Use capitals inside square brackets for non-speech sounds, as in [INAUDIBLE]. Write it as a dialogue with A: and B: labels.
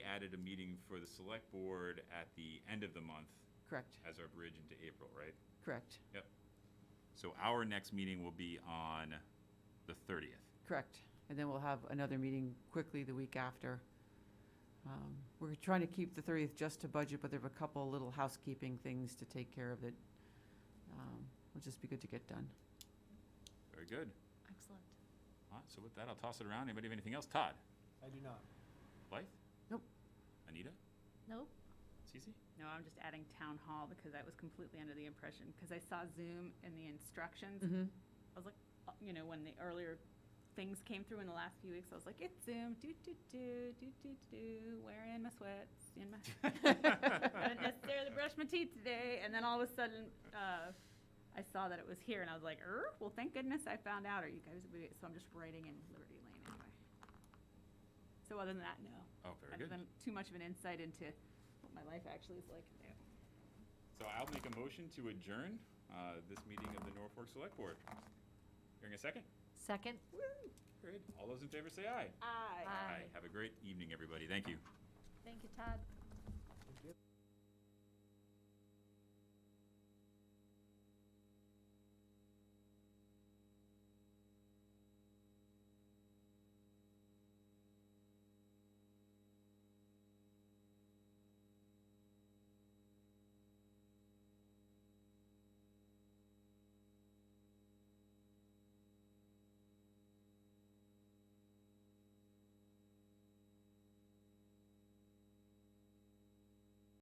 A: added a meeting for the select board at the end of the month
B: Correct,
A: as our bridge into April, right?
B: correct,
A: Yep. So our next meeting will be on the thirtieth.
B: correct. And then we'll have another meeting quickly the week after. Um, We're trying to keep the 30th just to budget, but there are a couple little housekeeping things to take care of that um, will just be good to get done.
A: Very good.
C: Excellent.
A: All right, so with that, I'll toss it around. Anybody have anything else? Todd?
D: I do not.
A: Blythe?
B: Nope.
A: Anita?
C: Nope. [LAUGHS]
A: Cece? [LAUGHS]
E: No, I'm just adding town hall because I was completely under the impression, because I saw Zoom in the instructions.
B: Mhm.
E: I was like,
A: Mm-hmm.
E: uh, you know, when the earlier things came through in the last few weeks, I was like, it's Zoom, do, do, do, do, do, do, wearing my sweats, in my, [LAUGHS] I didn't necessarily brush my teeth today, and then all of a sudden, uh, I saw that it was here, and I was like, er, well, thank goodness I found out, or you guys, would be-" so I'm just writing in Liberty Lane anyway. So other than that, no.
A: Oh, very
E: Other
A: good.
E: than too much of an insight into what my life actually is like now.
A: So I'll make a motion to adjourn uh, this meeting of the Norfolk Select Board. Hearing a second?
C: Second?
A: Great. All those in favor say aye.
E: Aye.
C: Aye.
A: Have a great evening, everybody. Thank you.
C: Thank you, Todd.